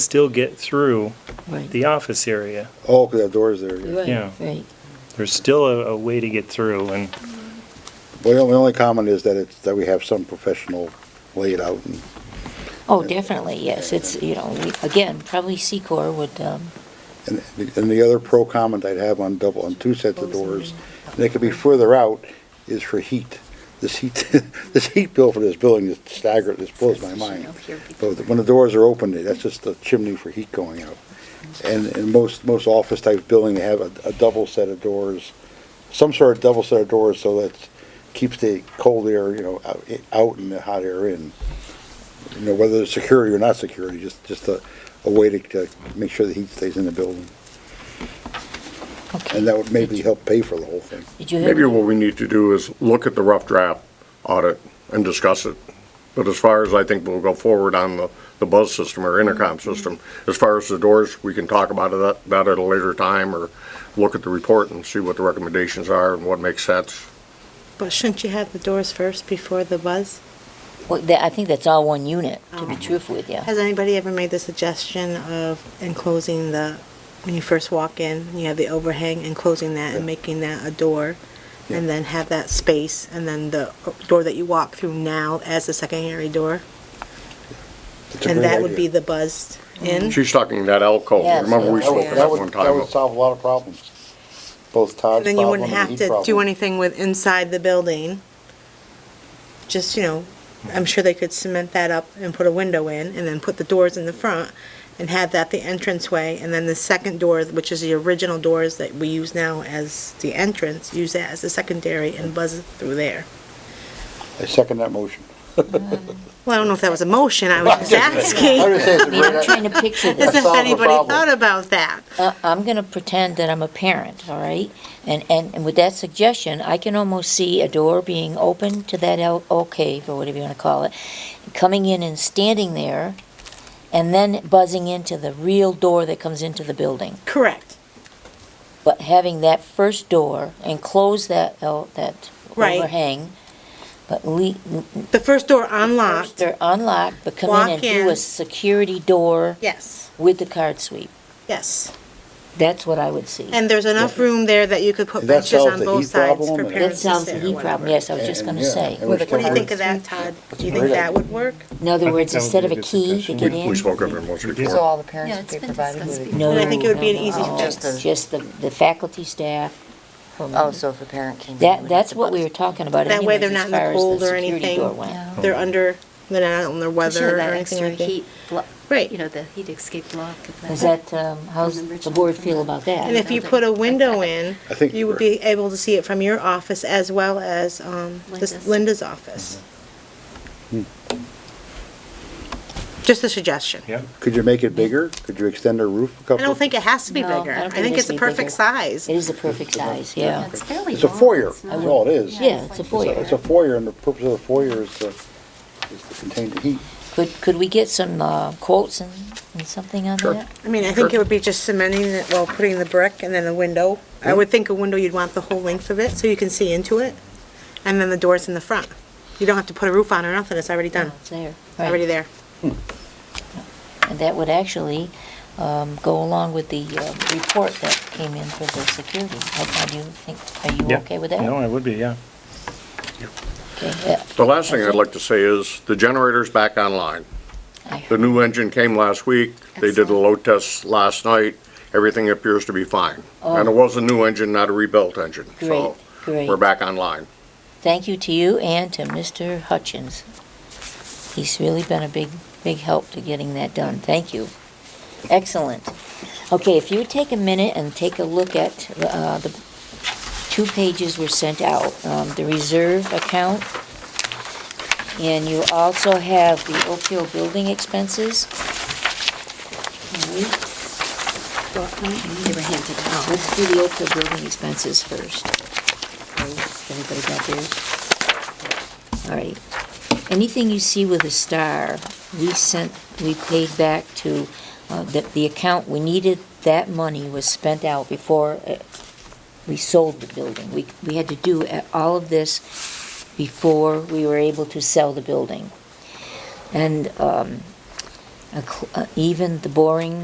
still get through Right. the office area. Oh, 'cause that door's there, yeah. Yeah. Right, right. There's still a, a way to get through and, Well, the only- only comment is that it's, that we have some professional laid out and Oh, definitely, yes, it's, you know, we- again, probably Secor would, um, And the- and the other pro comment I'd have on double, on two sets of doors, and they could be further out, is for heat. This heat, this heat bill for this building is staggering, this blows my mind. But when the doors are open, that's just the chimney for heat going out. And, and most, most office type building, they have a, a double set of doors, some sort of double set of doors so that keeps the cold air, you know, out- out and the hot air in. You know, whether it's security or not security, just, just a, a way to, to make sure the heat stays in the building. okay. And that would maybe help pay for the whole thing. Did you have? Maybe what we need to do is look at the rough draft audit and discuss it. But as far as I think we'll go forward on the, the buzz system or intercom Mm-hmm. system, as far as the doors, we can talk about it, that at a later time or look at the report and see what the recommendations are and what makes sense. But shouldn't you have the doors first before the buzz? Well, that- I think that's all one unit, to be truthful with you. Has anybody ever made the suggestion of enclosing the, when you first walk in, you have the overhang, enclosing that and making that a door? And then have that space, and then the door that you walk through now as the secondary door? It's a And great that would be idea. the buzz in? She's talking that alcove, Yes. remember we That would- spoke about would- one That time. would solve a lot of problems, both Todd's And then you problem wouldn't and the have heat to do problem. anything with inside the building. Just, you know, I'm sure they could cement that up and put a window in and then put the doors in the front and have that the entranceway. And then the second door, which is the original doors that we use now as the entrance, use that as the secondary and buzz through there. I second that motion. Well, I don't know if that was a motion, I was just I asking would say it's a I mean, great I'm idea. trying to picture as this. if Solve the anybody problem. thought about that. Uh, I'm going to pretend that I'm a parent, all right? And, and and with that suggestion, I can almost see a door being open to that al- alcove, or whatever you want to call it, coming in and standing there, and then buzzing into the real door that comes into the building. Correct, But having that first door and close that, oh, that Right. overhang, but le, the first door first unlocked, they're unlocked, but come in and Walk do a in. security door yes, with the card sweep. yes. That's what I would see. And there's enough room there that you could put And that benches solves on the both heat sides problem for and- That parents to solves the sit or heat problem, whatever. yes, I was just And- gonna yeah, say. and we What should do you have- think of that, Todd? Do you Great think that idea. would work? In other I words, think that instead would be a of a good key to suggestion. get We we in, spoke of it once So before. all the Yeah, parents it's be been provided discussed with? before. no, But I think it would be an no, easy no, fix. no, Just the, the faculty staff. from- Oh, so if a parent came in. That, that's what we were talking about That way anyways, they're as not in the far as cold the or security anything. door went. Yeah. They're under, they're not on their Sure, weather or that anything extra like that. heat block. Right. You know, the heat escape block. of Is that, um, how's Remember the board Jonathan? feel about And that? if you put a window in, I think you would we're- be able to see it from your office as well as um, this- Linda's. Linda's office. Mm-hmm. Hmm. Just a suggestion. yeah. Could you make it bigger? Could you extend the roof a I couple? don't think it has to be No, I bigger. don't I think it think has it's to the be bigger. perfect size. It is the perfect size, yeah. It's fairly It's a long, foyer, it's that's not- all it is. Yeah, it's a like- foyer. It's a foyer, and the purpose of the foyer is to, is to contain the heat. Could, could we get some uh, quotes and, and something on Sure. that? I mean, I think it would be just cementing it while putting the brick and then a window. I would think a window, you'd want the whole length of it so you can see into it. And then the doors in the front. You don't have to put a roof on or nothing, it's already done. It's there. It's already there. And that would actually um, go along with the uh, report that came in for the security. I do you think, are you Yeah. okay with that? No, I would be, yeah. Okay, yeah, The last thing I'd like to say is the generator's back online. I The heard. new engine came last week. They did a Excellent. load test last night. Everything appears to be fine. And it was a new engine, not a rebuilt engine. So Oh. Great, we're great. back online. Thank you to you and to Mr. Hutchins. He's really been a big, big help to getting that done. Thank you. Excellent. Okay, if you would take a minute and take a look at uh, the two pages were sent out, um, the reserve account, and you also have the Oak Hill building expenses. All right. They were handed out. Let's do the Oakville building expenses first. Everybody got theirs? All right. Anything you see with a star, we sent, we paid back to, uh, the, the account, we needed, that money was spent out before uh, we sold the building. We, we had to do uh, all of this before we were able to sell the building. And um, a cl- uh, even the boring